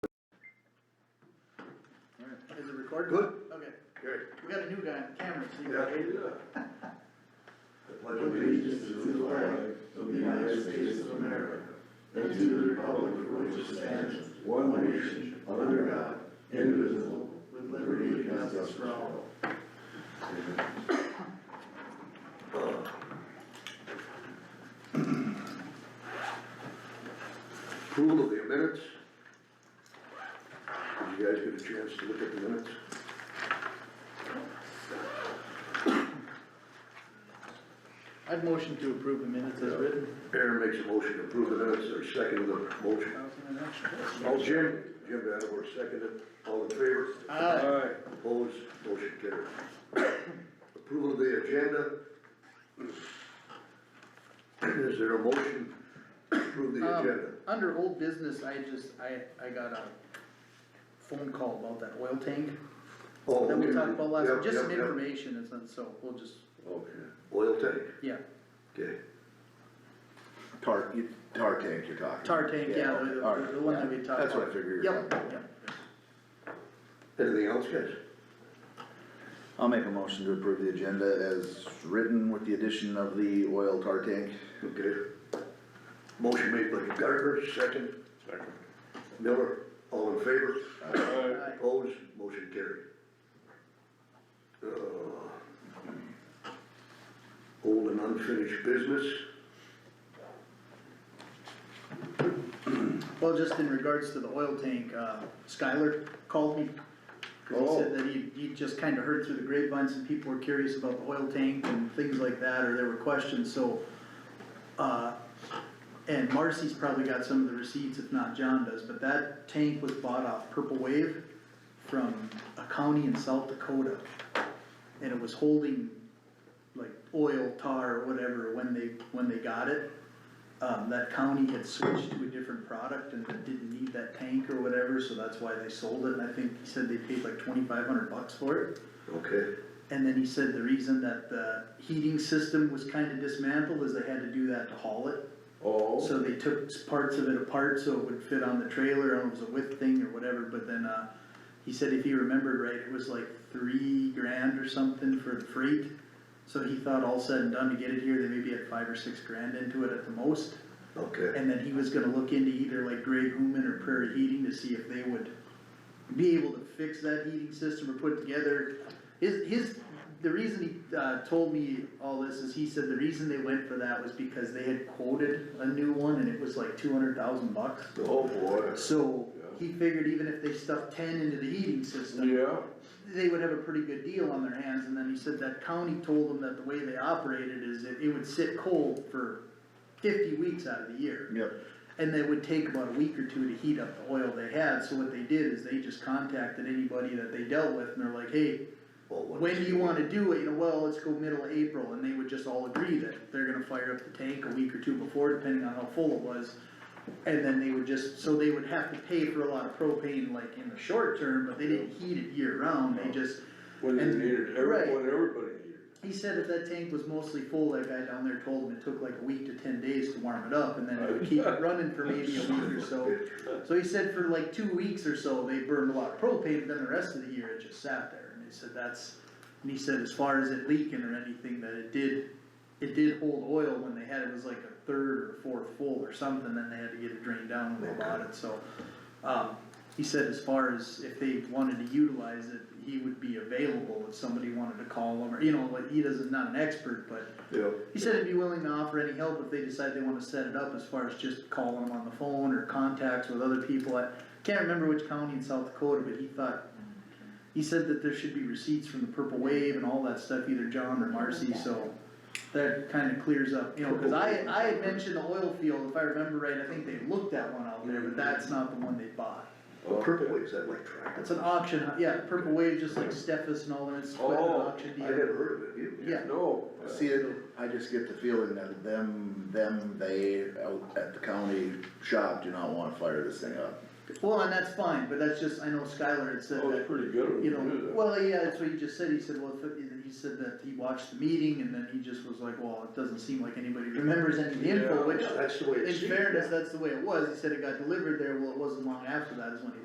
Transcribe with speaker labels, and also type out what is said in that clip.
Speaker 1: recording?
Speaker 2: Good.
Speaker 1: Okay,
Speaker 2: Gary?
Speaker 1: we got a new guy on camera, so you
Speaker 2: Yeah.
Speaker 1: got eight.
Speaker 2: The pledge of allegiance to the flag of the United States of America and to the republic for which it stands, one nation, under God, indivisible, with liberty and justice for all. Approval of the minutes. Did you guys get a chance to look at the minutes?
Speaker 1: I'd motion to approve the minutes as written.
Speaker 2: Aaron makes a motion to approve the minutes, or second the motion. All Jim, Jim Vanderwerf seconded, all in favor?
Speaker 1: Aye.
Speaker 2: Opposed, motion carried. Approval of the agenda. Is there a motion to approve the
Speaker 1: Um,
Speaker 2: agenda?
Speaker 1: Under old business, I just, I, I got a phone call about that oil tank
Speaker 2: Oh,
Speaker 1: that we
Speaker 2: okay.
Speaker 1: talked about last,
Speaker 2: Yep,
Speaker 1: week. just
Speaker 2: yep,
Speaker 1: some
Speaker 2: yep.
Speaker 1: information, it's, not- so we'll just,
Speaker 2: Okay, oil tank,
Speaker 1: yeah.
Speaker 2: okay.
Speaker 3: Tar, you- tar tank you're talking.
Speaker 1: Tar tank, yeah, the,
Speaker 3: all right,
Speaker 1: the- the one that we
Speaker 3: yeah.
Speaker 1: talked about.
Speaker 3: That's what I figured. you were
Speaker 1: Yep,
Speaker 3: talking about.
Speaker 1: yep.
Speaker 2: Anything else, guys?
Speaker 3: I'll make a motion to approve the agenda as written with the addition of the oil tar tank.
Speaker 2: Okay. Motion made by Gardner, second. Second. Miller, all in favor?
Speaker 1: Aye.
Speaker 2: Opposed, motion carried. Uh, Old and unfinished business,
Speaker 1: Well, just in regards to the oil tank, uh, Skylar called me. Cause he said that he, he just kinda heard through the grapevine, some people were curious about the oil tank and things like that, or there were questions, so. Uh, and Marcy's probably got some of the receipts, if not John does, but that tank was bought off Purple Wave from a county in South Dakota. And it was holding like oil, tar, or whatever, when they, when they got it um, that county had switched to a different product and didn't need that tank or whatever, so that's why they sold it, and I think he said they paid like twenty-five hundred bucks for it.
Speaker 2: okay,
Speaker 1: And then he said the reason that the heating system was kinda dismantled is they had to do that to haul it.
Speaker 3: Oh.
Speaker 1: So they took parts of it apart so it would fit on the trailer, and it was a width thing or whatever, but then, uh, he said if he remembered right, it was like three grand or something for the freight. So he thought all said and done to get it here, they maybe had five or six grand into it at the most.
Speaker 2: okay,
Speaker 1: And then he was gonna look into either like Greg Human or Prairie Heating to see if they would be able to fix that heating system or put together. His, his, the reason he, uh, told me all this is he said the reason they went for that was because they had quoted a new one and it was like two hundred thousand bucks.
Speaker 2: oh boy.
Speaker 1: So he figured even if they stuffed ten into the heating system. They would have a pretty good deal on their hands and then he said that county told them that the way they operated is it, it would sit cold for fifty weeks out of the year.
Speaker 3: Yep.
Speaker 1: And they would take about a week or two to heat up the oil they had, so what they did is they just contacted anybody that they dealt with, and they're like, hey,
Speaker 2: Well, what-
Speaker 1: when do you wanna do it, you know, well, let's go middle of April, and they would just all agree that they're gonna fire up the tank a week or two before, depending on how full it was. And then they would just, so they would have to pay for a lot of propane, like, in the short term, but they didn't heat it year round, they just,
Speaker 4: When they
Speaker 1: And-
Speaker 4: needed,
Speaker 1: right.
Speaker 4: everyone, everybody needed.
Speaker 1: he said if that tank was mostly full, that guy down there told him it took like a week to ten days to warm it up, and then it would keep it running for maybe a week or so. So he said for like two weeks or so, they burned a lot of propane, but then the rest of the year it just sat there, and he said that's, and he said as far as it leaking or anything, that it did, it did hold oil when they had, it was like a third or fourth full or something, then they had to get it drained down when they bought it, so. Um, he said as far as if they wanted to utilize it, he would be available if somebody wanted to call him, or, you know, like, he doesn't, not an expert, but
Speaker 2: Yeah,
Speaker 1: he said he'd be willing to offer any help if they decide they wanna set it up as far as just calling them on the phone or contacts with other people. I can't remember which county in South Dakota, but he thought, he said that there should be receipts from the Purple Wave and all that stuff, either John or Marcy, so that kinda clears up, you know, cause I, I had mentioned the oil field, if I remember right, I think they looked at one out there, but that's not the one they bought.
Speaker 2: well, purple is that like tractor?
Speaker 1: It's an auction, yeah, Purple Wave, just like Steffes and all that, it's quite an
Speaker 4: Oh,
Speaker 1: auction
Speaker 2: I
Speaker 1: deal.
Speaker 2: never heard of it, you?
Speaker 1: Yeah.
Speaker 4: No.
Speaker 3: See, it- I just get the feeling that them, them, they out at the county shop do not wanna fire this thing up.
Speaker 1: Well, and that's fine, but that's just, I know Skylar had said
Speaker 4: That was
Speaker 1: that,
Speaker 4: Oh, pretty good of
Speaker 1: you
Speaker 4: them to do
Speaker 1: know,
Speaker 4: that.
Speaker 1: well, yeah, that's what he just said, he said, well, if it- he said that he watched the meeting, and then he just was like, well, it doesn't seem like anybody remembers any of the info,
Speaker 4: Yeah.
Speaker 1: which,
Speaker 2: Yeah, That's the way it
Speaker 1: in
Speaker 2: seems.
Speaker 1: fairness, that's the way it was, he said it got delivered there, well, it wasn't long after that is when he